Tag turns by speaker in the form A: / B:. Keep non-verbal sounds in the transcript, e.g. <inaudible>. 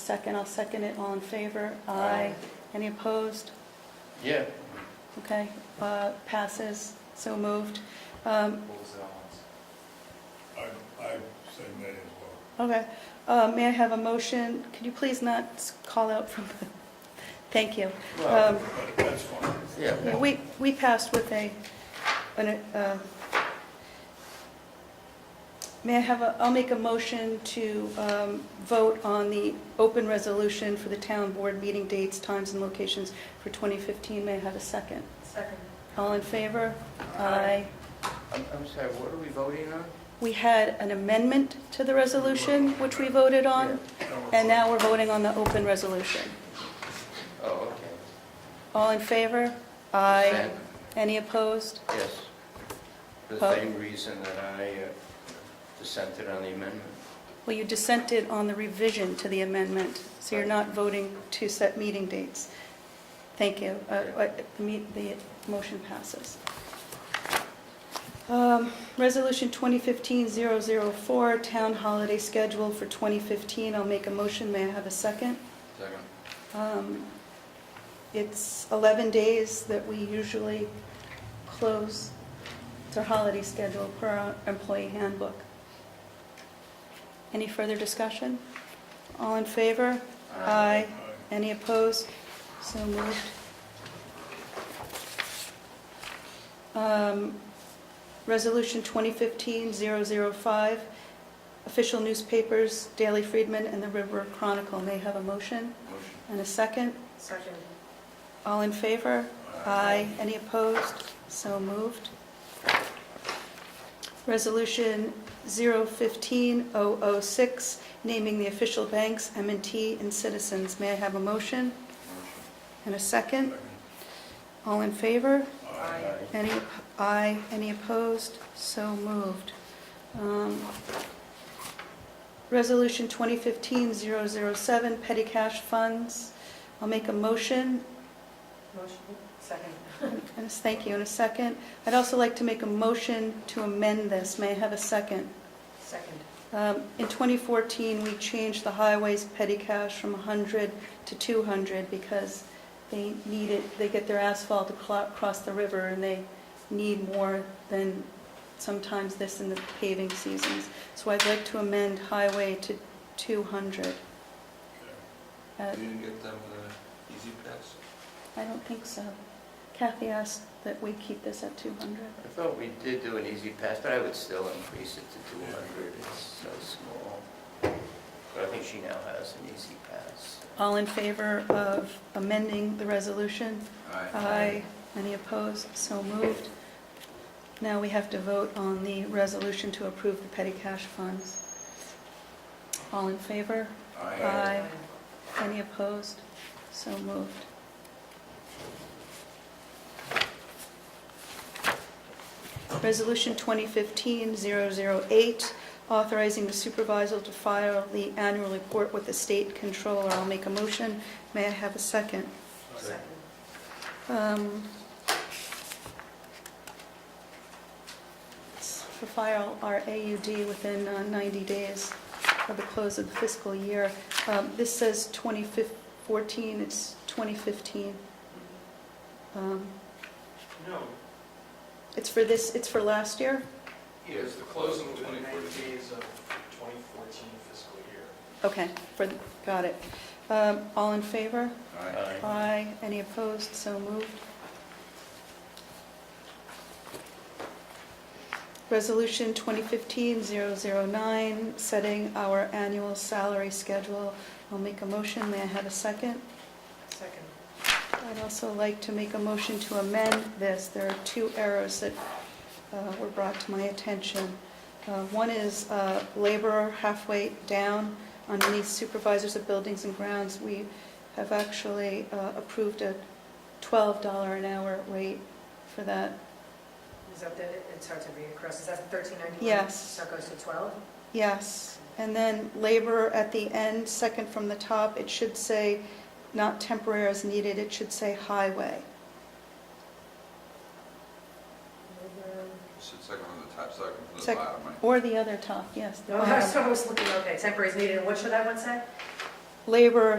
A: second, I'll second it, all in favor?
B: Aye.
A: Any opposed?
B: Yeah.
A: Okay, uh, passes, so moved. Um,
B: What was that one?
C: I, I say may as well.
A: Okay, uh, may I have a motion? Could you please not s- call out from, <laughs> thank you.
B: Well,
A: Um,
C: But that's fine.
A: Yeah,
B: Yeah,
A: We, we passed with a, an, uh, may I have a, I'll make a motion to um, vote on the open resolution for the town board meeting dates, times, and locations for 2015. May I have a second?
D: Second.
A: All in favor?
D: Aye.
B: I'm, I'm sorry, what are we voting on?
A: We had an amendment to the resolution, which we voted on, and now we're voting on the open resolution.
B: Oh, okay.
A: All in favor?
B: Consent?
A: Any opposed?
B: Yes. For
A: Oh.
B: the same reason that I uh, dissented on the amendment.
A: Well, you dissented on the revision to the amendment, so you're not voting to set meeting dates. Thank you. Uh, uh, The meet- the motion passes. Um, Resolution 2015-004, town holiday schedule for 2015. I'll make a motion. May I have a second?
B: Second.
A: Um, It's 11 days that we usually close. It's our holiday schedule per our employee handbook. Any further discussion? All in favor?
B: Aye.
A: Any opposed? So moved. Um, Resolution 2015-005, official newspapers, Daily Freedman and the River Chronicle. May I have a motion
B: Motion.
A: and a second?
D: Second.
A: All in favor? Aye. Any opposed? So moved. Resolution 015-006, naming the official banks, m and T, and Citizens. May I have a motion
B: Motion.
A: and a second? All in favor?
D: Aye.
A: Any, op- aye, any opposed? So moved. Um, Resolution 2015-007, petty cash funds. I'll make a motion
D: Motion. Second.
A: And a thank you in a second. I'd also like to make a motion to amend this. May I have a second?
D: Second.
A: Um, In 2014, we changed the highways petty cash from 100 to 200 because they need it, they get their asphalt to clo- cross the river and they need more than sometimes this in the paving seasons. So I'd like to amend highway to 200. Uh,
B: You didn't get them the easy pass?
A: I don't think so. Kathy asked that we keep this at 200.
B: I thought we did do an easy pass, but I would still increase it to 200. It's so small. But I think she now has an easy pass.
A: All in favor of amending the resolution? Aye. Any opposed? So moved. Now we have to vote on the resolution to approve the petty cash funds. All in favor? Aye. Any opposed? So moved. Resolution 2015-008, authorizing the supervisor to file the annual report with the state controller. I'll make a motion. May I have a second?
D: Second.
A: Um, it's For file our AUD within uh, 90 days of the close of the fiscal year. Um, This says 2014, it's 2015. Um,
E: No,
A: It's for this, it's for last year?
E: it was the closing within 90 days of 2014 fiscal year.
A: Okay, for, got it. Um, All in favor?
B: Aye.
A: Aye. Any opposed? So moved. Resolution 2015-009, setting our annual salary schedule. I'll make a motion. May I have a second?
D: Second.
A: I'd also like to make a motion to amend this. There are two errors that uh, were brought to my attention. Uh, One is uh, laborer halfway down underneath supervisors of buildings and grounds. We have actually uh, approved a $12 an hour rate for that.
D: Is that the, it's hard to read across, is that the 1391?
A: Yes.
D: So it goes to 12?
A: Yes. And then laborer at the end, second from the top, it should say not temporary as needed, it should say highway.
F: Should second from the top, second from the
A: Sec-
F: bottom, right?
A: Or the other top, yes. the
D: No, I
A: bottom.
D: was almost looking, okay, temporary is needed, and what should that one say?
A: labor